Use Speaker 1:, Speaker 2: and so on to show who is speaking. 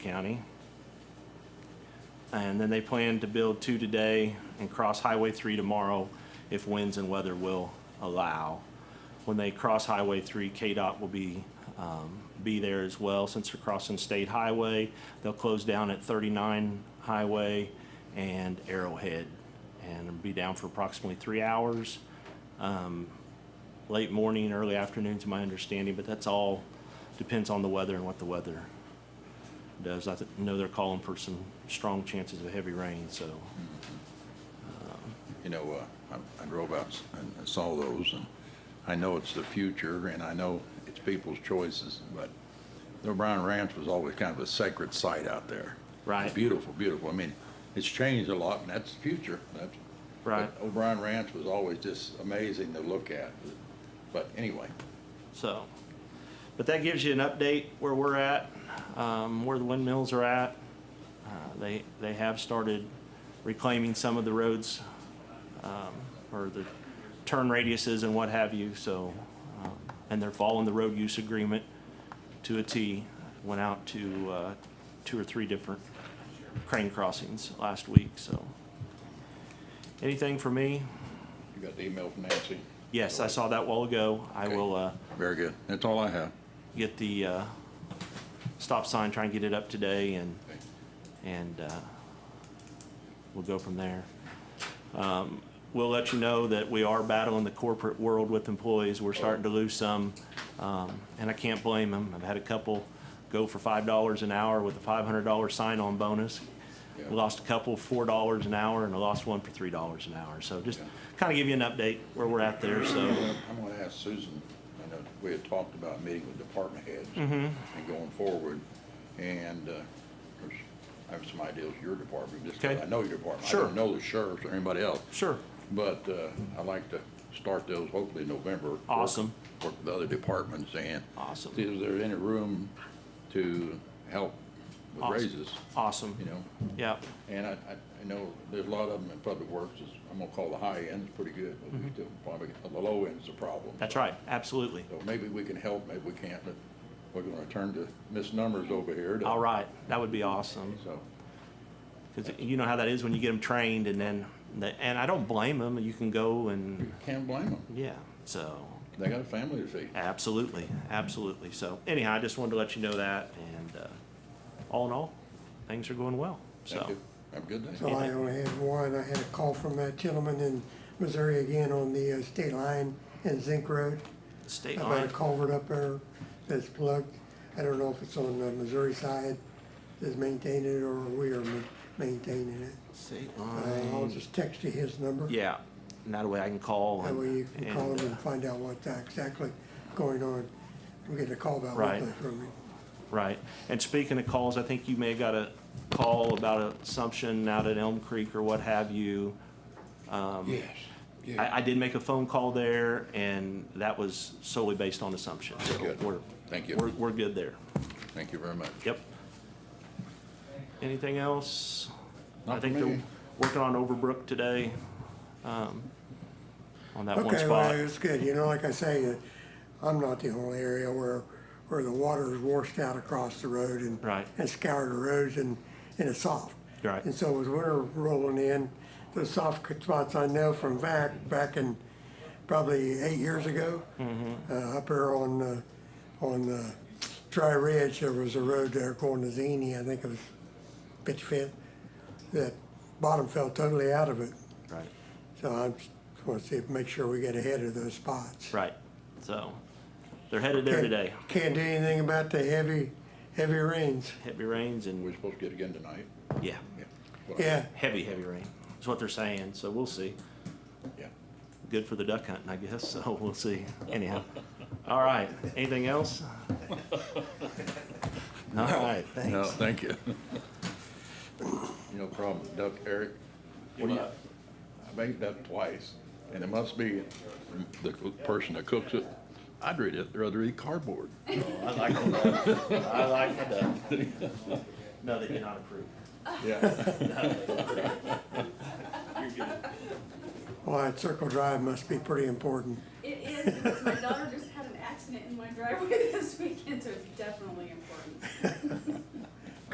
Speaker 1: County. And then they plan to build two today and cross Highway 3 tomorrow if winds and weather will allow. When they cross Highway 3, KDOT will be, um, be there as well. Since they're crossing State Highway, they'll close down at 39 Highway and Arrowhead and be down for approximately three hours. Um, Late morning, early afternoon is my understanding, but that's all depends on the weather and what the weather does. I th- know they're calling for some strong chances of heavy rain, so.
Speaker 2: You know, uh, I I drove out and saw those, and I know it's the future, and I know it's people's choices, but the O'Brien Ranch was always kind of a sacred site out there.
Speaker 1: Right.
Speaker 2: Beautiful, beautiful. I mean, it's changed a lot, and that's the future. That's-
Speaker 1: Right.
Speaker 2: but O'Brien Ranch was always just amazing to look at. But anyway,
Speaker 1: So, but that gives you an update where we're at, um, where the windmills are at. Uh, They, they have started reclaiming some of the roads, um, or the turn radiuses and what have you, so, um, and they're following the road use agreement to a T. Went out to, uh, two or three different crane crossings last week, so. Anything for me?
Speaker 2: you got the email from Nancy?
Speaker 1: Yes, I saw that while ago. I
Speaker 2: Okay.
Speaker 1: will, uh,
Speaker 2: Very good. That's all I have.
Speaker 1: get the uh, stop sign, try and get it up today, and,
Speaker 2: Okay.
Speaker 1: and uh, we'll go from there. Um, We'll let you know that we are battling the corporate world with employees. We're starting to lose some, um, and I can't blame them. I've had a couple go for five dollars an hour with a five hundred dollar sign-on bonus.
Speaker 2: Yeah.
Speaker 1: We lost a couple four dollars an hour, and I lost one for three dollars an hour. So just
Speaker 2: Yeah.
Speaker 1: kind of give you an update where we're at there, so.
Speaker 2: I'm gonna ask Susan, I know we had talked about meeting with department heads
Speaker 1: Mm-hmm.
Speaker 2: and going forward, and, uh, of course, I have some ideas, your department, just 'cause
Speaker 1: Okay.
Speaker 2: I know your department. I
Speaker 1: Sure.
Speaker 2: don't know the sheriffs or anybody else,
Speaker 1: Sure.
Speaker 2: but, uh, I'd like to start those hopefully in November. work-
Speaker 1: Awesome.
Speaker 2: Work with the other departments and.
Speaker 1: Awesome.
Speaker 2: See if there's any room to help with
Speaker 1: Awesome.
Speaker 2: raises,
Speaker 1: Awesome.
Speaker 2: you know?
Speaker 1: Yep.
Speaker 2: And I, I, I know there's a lot of them in public works, is- I'm gonna call the high end, it's pretty good, but we
Speaker 1: Mm-hmm.
Speaker 2: still probably, the low end's a problem.
Speaker 1: That's right, absolutely.
Speaker 2: So maybe we can help, maybe we can't, but we're gonna turn to misnumbers over here. to-
Speaker 1: All right, that would be awesome.
Speaker 2: So,
Speaker 1: Because you know how that is when you get them trained and then, the- and I don't blame them, you can go and,
Speaker 2: you can't blame them,
Speaker 1: yeah, so,
Speaker 2: they got a family to feed.
Speaker 1: absolutely, absolutely. So anyhow, I just wanted to let you know that and, uh, all in all, things are going well,
Speaker 2: Thank
Speaker 1: so.
Speaker 2: you, have a good
Speaker 3: So uh,
Speaker 2: day.
Speaker 3: I only had one. I had a call from that gentleman in Missouri again on the uh, state line and Zinc Road
Speaker 1: State
Speaker 3: about a
Speaker 1: line,
Speaker 3: culvert up there that's plugged. I don't know if it's on the Missouri side that's maintaining it or we are ma- maintaining it.
Speaker 1: state
Speaker 3: Uh, I'll
Speaker 1: line,
Speaker 3: just text you his number.
Speaker 1: yeah, and that way I can call
Speaker 3: That way you
Speaker 1: and,
Speaker 3: can call
Speaker 1: and,
Speaker 3: him
Speaker 1: uh,
Speaker 3: and find out what's exactly going on. I'm getting a call about
Speaker 1: Right.
Speaker 3: one thing from him.
Speaker 1: right. And speaking of calls, I think you may have got a call about assumption out at Elm Creek or what have you.
Speaker 2: Yes,
Speaker 1: Um, I, I did make a phone call there, and that was solely based on assumptions. So
Speaker 2: Good.
Speaker 1: We're,
Speaker 2: Thank you.
Speaker 1: we're, we're good there.
Speaker 2: thank you very much.
Speaker 1: Yep. Anything else? I
Speaker 2: Not
Speaker 1: think
Speaker 2: for
Speaker 1: they're
Speaker 2: me.
Speaker 1: working on Overbrook today, um, on that one
Speaker 3: Okay, well,
Speaker 1: spot.
Speaker 3: it's good. You know, like I say, uh, I'm not the only area where, where the water is washed out across the road and.
Speaker 1: Right.
Speaker 3: And scoured the roads and, and it's soft.
Speaker 1: Right.
Speaker 3: And so as winter rolling in, the soft spots I know from back, back in probably eight years ago.
Speaker 1: Mm-hmm.
Speaker 3: Uh, up there on, uh, on, uh, Dry Ridge, there was a road there going to Zini, I think it was Pitch Fit, that bottom fell totally out of it.
Speaker 1: Right,
Speaker 3: So I just want to see, make sure we get ahead of those spots.
Speaker 1: right. So, they're headed there today.
Speaker 3: Can't do anything about the heavy, heavy rains.
Speaker 1: Heavy rains
Speaker 2: We're
Speaker 1: and,
Speaker 2: supposed to get again tonight?
Speaker 1: yeah,
Speaker 2: Yeah. Well,
Speaker 3: Yeah,
Speaker 1: heavy, heavy rain is what they're saying, so we'll see.
Speaker 2: Yeah.
Speaker 1: Good for the duck hunting, I guess, so we'll see. Anyhow, all right, anything else? All right,
Speaker 2: No,
Speaker 1: thanks.
Speaker 2: thank you. You know, problem, with duck, Eric, what do you, I made that twice, and it must be the person that cooks it. I'd read it, rather eat cardboard.
Speaker 1: I like the duck. I like the duck. No, they did not approve.
Speaker 2: Yeah.
Speaker 3: well, that Circle Drive must be pretty important.
Speaker 4: It is, because my daughter just had an accident in my driveway this weekend, so it's definitely important.